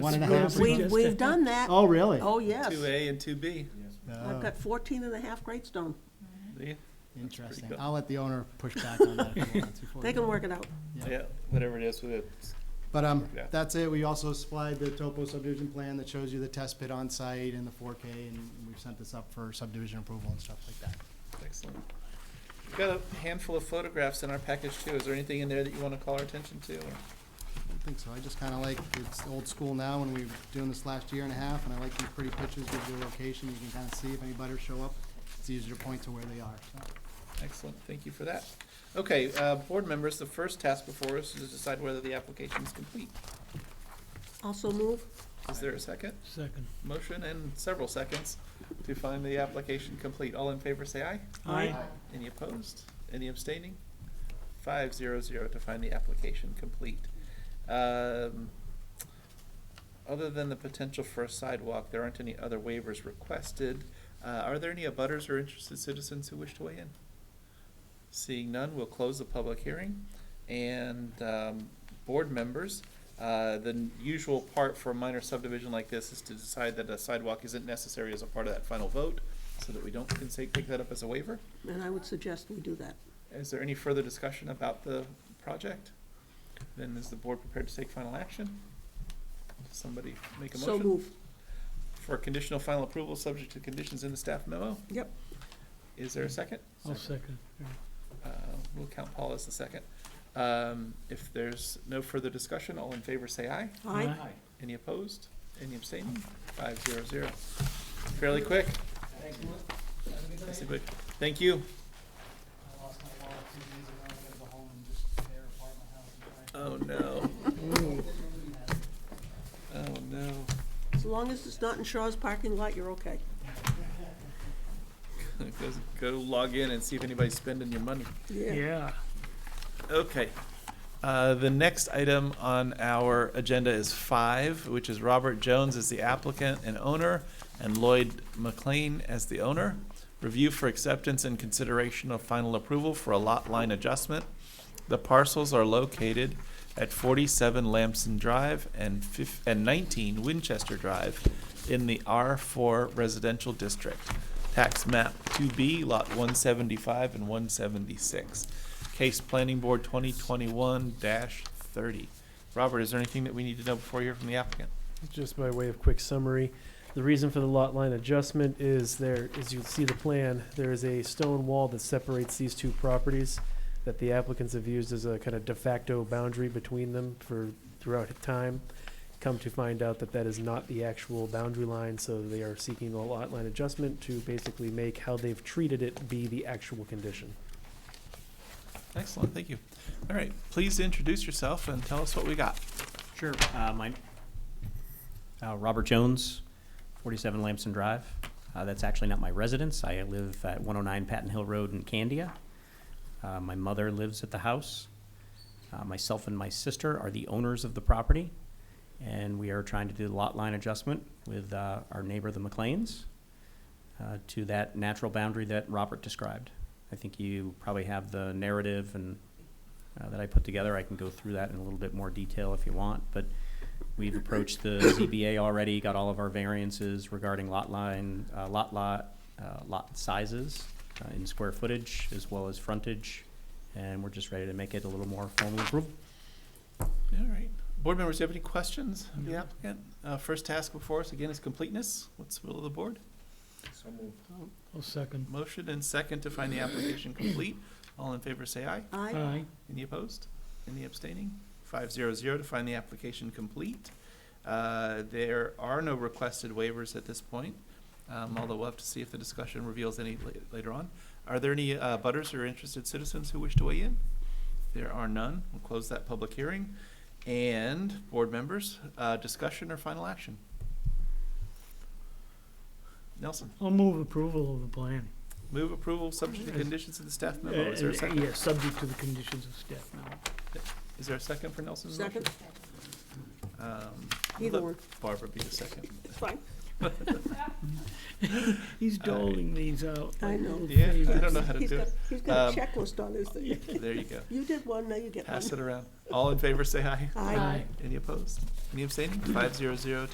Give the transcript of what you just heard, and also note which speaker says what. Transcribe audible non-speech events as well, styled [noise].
Speaker 1: One and a
Speaker 2: Well,
Speaker 1: half. or
Speaker 2: we-
Speaker 1: something?
Speaker 2: just
Speaker 3: We've, we've
Speaker 2: a-
Speaker 3: done that.
Speaker 1: Oh, really?
Speaker 3: Oh, yes.
Speaker 2: Two A and two B.
Speaker 3: I've got 14 and a half grades done.
Speaker 2: Yeah,
Speaker 1: Interesting.
Speaker 2: good.
Speaker 1: I'll let the owner push back on that if he wants before.
Speaker 3: They
Speaker 1: we
Speaker 3: can
Speaker 1: go.
Speaker 3: work it out.
Speaker 2: yeah, whatever it is with it.
Speaker 1: But, um,
Speaker 2: Yeah.
Speaker 1: that's it. We also supplied the topo subdivision plan that shows you the test pit on site and the four K, and we've sent this up for subdivision approval and stuff like that.
Speaker 2: Excellent. We've got a handful of photographs in our package too. Is there anything in there that you want to call our attention to? or-
Speaker 1: I don't think so. I just kinda like, it's old school now, and we've been doing this last year and a half, and I like these pretty pictures, gives you a location, you can kinda see if any butters show up. It's easier to point to where they are, so.
Speaker 2: Excellent, thank you for that. Okay, uh, board members, the first task before us is to decide whether the application is complete.
Speaker 3: Also move.
Speaker 2: Is there a second?
Speaker 4: Second.
Speaker 2: Motion and several seconds to find the application complete. All in favor, say aye.
Speaker 4: Aye.
Speaker 2: Any opposed? Any abstaining? Five zero zero to find the application complete. Um, Other than the potential for a sidewalk, there aren't any other waivers requested. Uh, Are there any abutters or interested citizens who wish to weigh in? Seeing none, we'll close the public hearing. And um, board members, uh, the n- usual part for a minor subdivision like this is to decide that a sidewalk isn't necessary as a part of that final vote, so that we don't can say, pick that up as a waiver.
Speaker 3: And I would suggest we do that.
Speaker 2: Is there any further discussion about the project? Then is the board prepared to take final action? Does Somebody make a
Speaker 3: So
Speaker 2: motion
Speaker 3: move.
Speaker 2: for conditional final approval, subject to conditions in the staff memo?
Speaker 3: Yep.
Speaker 2: Is there a second?
Speaker 4: I'll second.
Speaker 2: Uh, We'll count Paul as the second. Um, If there's no further discussion, all in favor say aye.
Speaker 3: Aye.
Speaker 2: Any opposed? Any abstaining? Five zero zero. Fairly quick. Thank you. Thank you.
Speaker 1: I lost my wallet two days ago, I gotta go home and just tear apart my house and try.
Speaker 2: Oh, no. Oh, no.
Speaker 3: As long as it's not in Shaw's parking lot, you're okay.
Speaker 2: [laughs] Go- Go log in and see if anybody's spending your money.
Speaker 3: Yeah.
Speaker 4: Yeah.
Speaker 2: Okay. Uh, The next item on our agenda is five, which is Robert Jones as the applicant and owner, and Lloyd McLean as the owner. Review for acceptance and consideration of final approval for a lot line adjustment. The parcels are located at forty-seven Lamson Drive and fif- and nineteen Winchester Drive in the R four residential district. Tax map two B, lot one seventy-five and one seventy-six. Case Planning Board twenty twenty-one thirty. Robert, is there anything that we need to know before we hear from the applicant?
Speaker 5: Just by way of quick summary, the reason for the lot line adjustment is there, as you see the plan, there is a stone wall that separates these two properties that the applicants have used as a kind of de facto boundary between them for throughout time. Come to find out that that is not the actual boundary line, so they are seeking the lot line adjustment to basically make how they've treated it be the actual condition.
Speaker 2: Excellent, thank you. All right, please introduce yourself and tell us what we got.
Speaker 6: Sure. Uh, my, uh, Robert Jones, forty-seven Lamson Drive. Uh, that's actually not my residence. I live at one oh nine Patton Hill Road in Candia. Uh, my mother lives at the house. Uh, myself and my sister are the owners of the property. And we are trying to do the lot line adjustment with, uh, our neighbor, the McLeans, uh, to that natural boundary that Robert described. I think you probably have the narrative and uh, that I put together. I can go through that in a little bit more detail if you want, but we've approached the ZBA already, got all of our variances regarding lot line, uh, lot lot, uh, lot sizes uh, in square footage as well as frontage, and we're just ready to make it a little more formally approved.
Speaker 2: All right. Board members, do you have any questions of the applicant? Uh, First task before us, again, is completeness. What's the will of the board?
Speaker 4: I'll second.
Speaker 2: Motion and second to find the application complete. All in favor, say aye.
Speaker 3: Aye.
Speaker 4: Aye.
Speaker 2: Any opposed? Any abstaining? Five zero zero to find the application complete. Uh, There are no requested waivers at this point, um, although we'll have to see if the discussion reveals any la- later on. Are there any uh, butters or interested citizens who wish to weigh in? There are none. We'll close that public hearing. And, board members, uh, discussion or final action? Nelson,
Speaker 4: I'll move approval of the plan.
Speaker 2: move approval subject to conditions of the staff memo. Oh,
Speaker 4: Uh,
Speaker 2: Is there a second?
Speaker 4: Yeah, subject to the conditions of staff memo.
Speaker 2: Is there a second for Nelson's motion?
Speaker 3: Second?
Speaker 2: Um,
Speaker 3: Either
Speaker 2: let
Speaker 3: one.
Speaker 2: Barbara be the second.
Speaker 3: It's fine.
Speaker 4: He's doling these out.
Speaker 3: I
Speaker 4: like
Speaker 3: know.
Speaker 4: little
Speaker 2: Yeah, I
Speaker 4: favors.
Speaker 2: don't know how to
Speaker 3: He's
Speaker 2: do
Speaker 3: got-
Speaker 2: it.
Speaker 3: He's got
Speaker 2: Um,
Speaker 3: a checklist on his thing.
Speaker 2: There you go.
Speaker 3: You did one, now you get one.
Speaker 2: Pass it around. All in favor, say aye.
Speaker 3: Aye.
Speaker 2: Any opposed? Any abstaining? Five zero zero